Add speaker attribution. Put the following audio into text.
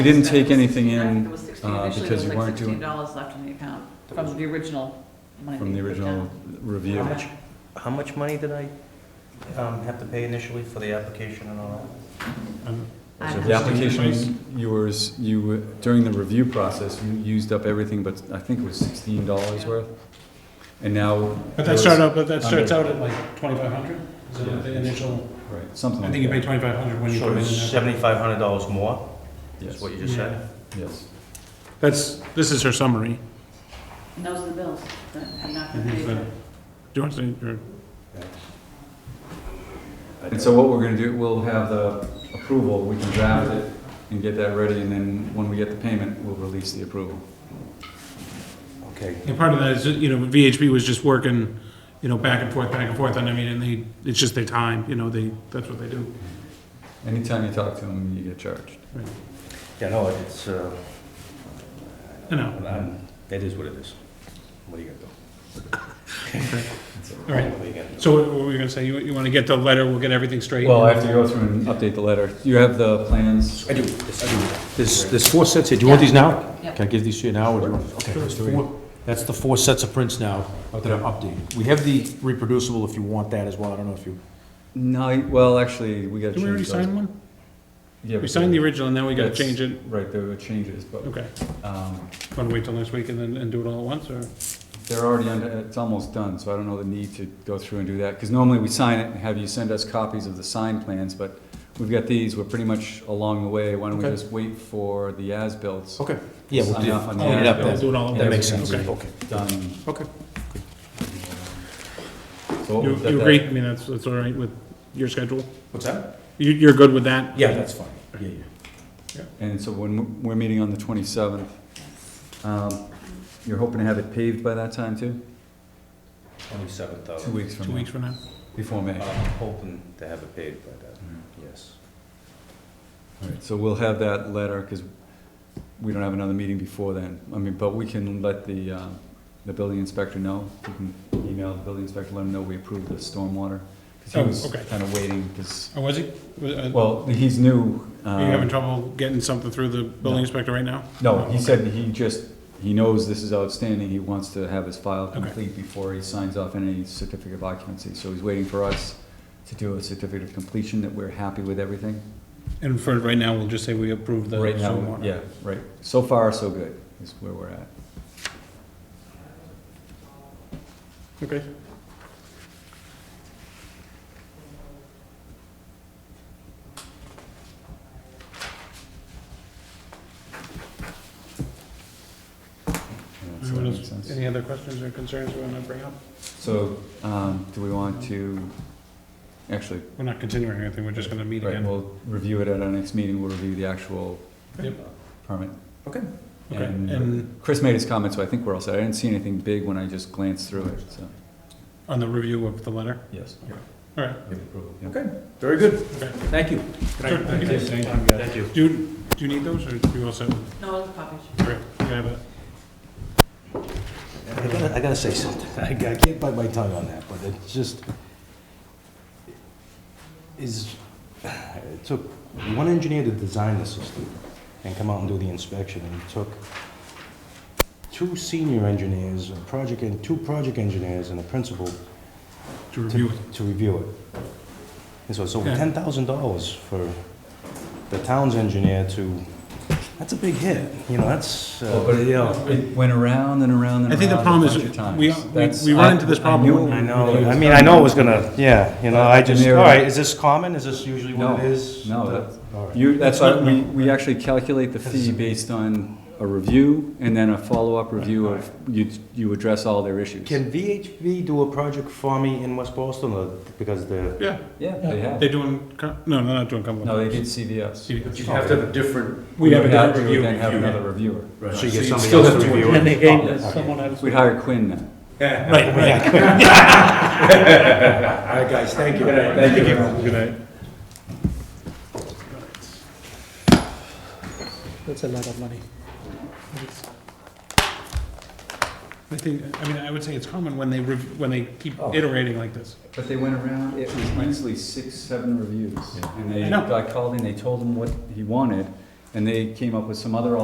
Speaker 1: We didn't take
Speaker 2: It was-
Speaker 1: anything
Speaker 2: I think
Speaker 1: in,
Speaker 2: it was 16.
Speaker 1: uh,
Speaker 2: Initially,
Speaker 1: because you
Speaker 2: there was like
Speaker 1: weren't doing-
Speaker 2: sixteen dollars left in the account from the original money.
Speaker 1: from the
Speaker 2: we put
Speaker 1: original
Speaker 2: down.
Speaker 1: review.
Speaker 2: How
Speaker 3: much? How much money did I um, have to pay initially for the application and all
Speaker 2: I
Speaker 3: So
Speaker 2: don't
Speaker 1: The
Speaker 2: know.
Speaker 1: application, you were, you, during the review process, you used up everything, but I think it was sixteen dollars worth. And now.
Speaker 4: But that started out, but that starts out at like twenty-five hundred, is
Speaker 1: Yeah.
Speaker 4: it the initial,
Speaker 1: Right, something
Speaker 4: I
Speaker 1: like
Speaker 4: think you pay
Speaker 1: that.
Speaker 4: twenty-five hundred
Speaker 3: that?
Speaker 4: when you
Speaker 3: So
Speaker 4: come in.
Speaker 3: it's seventy-five hundred dollars more, is
Speaker 1: Yes,
Speaker 3: what you just said?
Speaker 1: yes.
Speaker 4: That's, this is her summary.
Speaker 2: And those are the bills that I'm not
Speaker 4: Mhm,
Speaker 2: gonna pay
Speaker 4: but-
Speaker 2: for.
Speaker 4: Do you want to, or,
Speaker 1: And so what we're gonna do, we'll have the approval, we can draft it and get that ready, and then when we get the payment, we'll release the approval.
Speaker 3: Okay.
Speaker 4: and part of that is, you know, VHB was just working, you know, back and forth, back and forth, and I mean, and they, it's just their time, you know, they, that's what they do.
Speaker 1: Anytime you talk to them, you get charged.
Speaker 3: Yeah, no, it's, uh,
Speaker 4: You know,
Speaker 3: um, it is what it is. What are you gonna do?
Speaker 4: all right.
Speaker 3: What are you gonna do?
Speaker 4: So what were we gonna say? You, you wanna get the letter, we'll get everything straight?
Speaker 1: Well, I have to go through and update the letter. You have the plans?
Speaker 3: I do, yes, I do.
Speaker 5: There's, there's four sets here. Do you want these now?
Speaker 2: Yeah.
Speaker 5: Can I give these to you now? or do you want- Okay, there's four, that's the four sets of prints now that are updated. We have the reproducible if you want that as well. I don't know if you,
Speaker 1: No, I- well, actually, we gotta
Speaker 4: Did we
Speaker 1: change
Speaker 4: already
Speaker 1: those.
Speaker 4: sign one?
Speaker 1: Yeah,
Speaker 4: We signed the original, and then we gotta
Speaker 1: That's-
Speaker 4: change it.
Speaker 1: Right, there were changes, but,
Speaker 4: Okay.
Speaker 1: um,
Speaker 4: Wanna wait till next week and then, and do it all at once, or?
Speaker 1: they're already under, it's almost done, so I don't know the need to go through and do that. Because normally we sign it and have you send us copies of the signed plans, but we've got these, we're pretty much along the way. Why don't we
Speaker 5: Okay.
Speaker 1: just wait for the as built
Speaker 5: okay. Yeah, we'll
Speaker 1: Sign
Speaker 5: do,
Speaker 1: off on
Speaker 5: clean it up
Speaker 1: that.
Speaker 5: then.
Speaker 4: Do it all at once.
Speaker 5: That makes sense.
Speaker 4: Okay.
Speaker 5: Okay.
Speaker 1: done?
Speaker 5: Okay.
Speaker 1: So what
Speaker 4: You,
Speaker 1: was that-
Speaker 4: you agree? I mean, that's, that's all right with your schedule?
Speaker 5: What's that?
Speaker 4: You, you're good with that?
Speaker 5: Yeah, that's fine. Yeah, yeah.
Speaker 1: And so when, we're meeting on the twenty-seventh, um, you're hoping to have it paved by that time too?
Speaker 3: Twenty-seven
Speaker 1: Two
Speaker 3: thousand.
Speaker 1: weeks from
Speaker 4: Two
Speaker 1: now,
Speaker 4: weeks from now?
Speaker 1: before May.
Speaker 3: I'm hoping to have it paid by that,
Speaker 4: Mm-hmm.
Speaker 3: yes.
Speaker 1: All right, so we'll have that letter, because we don't have another meeting before then. I mean, but we can let the, uh, the building inspector know. We can email the building inspector, let him know we approved the stormwater.
Speaker 4: Oh,
Speaker 1: Because he
Speaker 4: okay.
Speaker 1: was kind of waiting, because,
Speaker 4: Or was he? Was- uh,
Speaker 1: well, he's new.
Speaker 4: Are you having
Speaker 1: uh,
Speaker 4: trouble getting something through the
Speaker 1: No.
Speaker 4: building inspector right now?
Speaker 1: No, he said he just, he knows this is outstanding. He wants to have his file
Speaker 4: Okay.
Speaker 1: complete before he signs off any certificate of occupancy. So he's waiting for us to do a certificate of completion, that we're happy with everything.
Speaker 4: And for right now, we'll just say we approve the
Speaker 1: Right now,
Speaker 4: stormwater.
Speaker 1: yeah, right. So far, so good, is where we're at.
Speaker 4: Okay.
Speaker 1: So that
Speaker 4: Anyone
Speaker 1: makes
Speaker 4: else-
Speaker 1: sense.
Speaker 4: Any other questions or concerns we want to bring up?
Speaker 1: So, um, do we want to, actually,
Speaker 4: We're not continuing anything, we're just gonna meet
Speaker 1: right,
Speaker 4: again.
Speaker 1: we'll review it at our next meeting, we'll review the actual
Speaker 4: Yep.
Speaker 1: permit.
Speaker 5: Okay.
Speaker 4: Okay,
Speaker 1: And uh,
Speaker 4: and-
Speaker 1: Chris made his comment, so I think we're all set. I didn't see anything big when I just glanced through it, so.
Speaker 4: On the review of the letter?
Speaker 1: Yes.
Speaker 4: All right.
Speaker 1: Okay.
Speaker 5: Very good.
Speaker 4: Okay.
Speaker 5: Thank you.
Speaker 4: Sure, thank you.
Speaker 3: Thank you.
Speaker 4: Do, you- do you need those, or do you also, all
Speaker 2: No, it was copies.
Speaker 4: right, you have it?
Speaker 5: I gotta, I gotta say something. I ca- I can't bite my tongue on that, but it's just, is, it took one engineer to design the system and come out and do the inspection, and it took two senior engineers, a project, and two project engineers and a principal
Speaker 4: To review
Speaker 5: to,
Speaker 4: it.
Speaker 5: to review it. And so it's over
Speaker 4: Yeah.
Speaker 5: ten thousand dollars for the town's engineer to, that's a big hit, you know, that's,
Speaker 1: Well, but
Speaker 5: uh,
Speaker 1: it, it went around and around and around.
Speaker 4: I think the
Speaker 1: a
Speaker 4: problem
Speaker 1: bunch
Speaker 4: is
Speaker 1: of times.
Speaker 4: we- we-
Speaker 1: That's-
Speaker 4: we run
Speaker 1: I-
Speaker 4: into this
Speaker 1: I
Speaker 4: problem
Speaker 1: knew
Speaker 4: when-
Speaker 1: it
Speaker 5: I
Speaker 1: was
Speaker 5: know,
Speaker 1: coming.
Speaker 5: I mean, I know it was gonna, yeah, you know, I just,
Speaker 1: And they're-
Speaker 5: all right, is this common? Is this usually what
Speaker 1: No,
Speaker 5: it is?
Speaker 1: no, that's-
Speaker 5: All right.
Speaker 1: You, that's why
Speaker 4: That's
Speaker 1: we, we actually calculate the fee based on a review and then a follow-up review of, you, you address all their issues.
Speaker 5: Can VHB do a project for me in West Boston, or- because the,
Speaker 4: Yeah,
Speaker 1: Yeah, they have.
Speaker 4: they're doing, Co- no, they're not doing Cumberland.
Speaker 1: No, they did CVS.
Speaker 4: CVS.
Speaker 5: have to
Speaker 3: have a different.
Speaker 4: We have a
Speaker 1: Now
Speaker 4: different
Speaker 1: we would
Speaker 4: review.
Speaker 1: Then have another reviewer.
Speaker 5: so you get
Speaker 3: So you
Speaker 5: somebody
Speaker 3: still
Speaker 5: else
Speaker 3: have
Speaker 5: to
Speaker 3: to
Speaker 5: review
Speaker 3: review
Speaker 5: it?
Speaker 1: gave
Speaker 4: Someone else.
Speaker 1: We'd hire Quinn then.
Speaker 4: Right, right.
Speaker 5: All right, guys, thank you.
Speaker 4: Thank you. Good night.
Speaker 6: That's a lot of money.
Speaker 4: I think, I mean, I would say it's common when they, rev- when they keep
Speaker 6: Oh.
Speaker 4: iterating like this.
Speaker 1: But they went around, it was easily six, seven reviews. And they
Speaker 4: I know.
Speaker 1: got called in, they told him what he wanted, And they came up with some other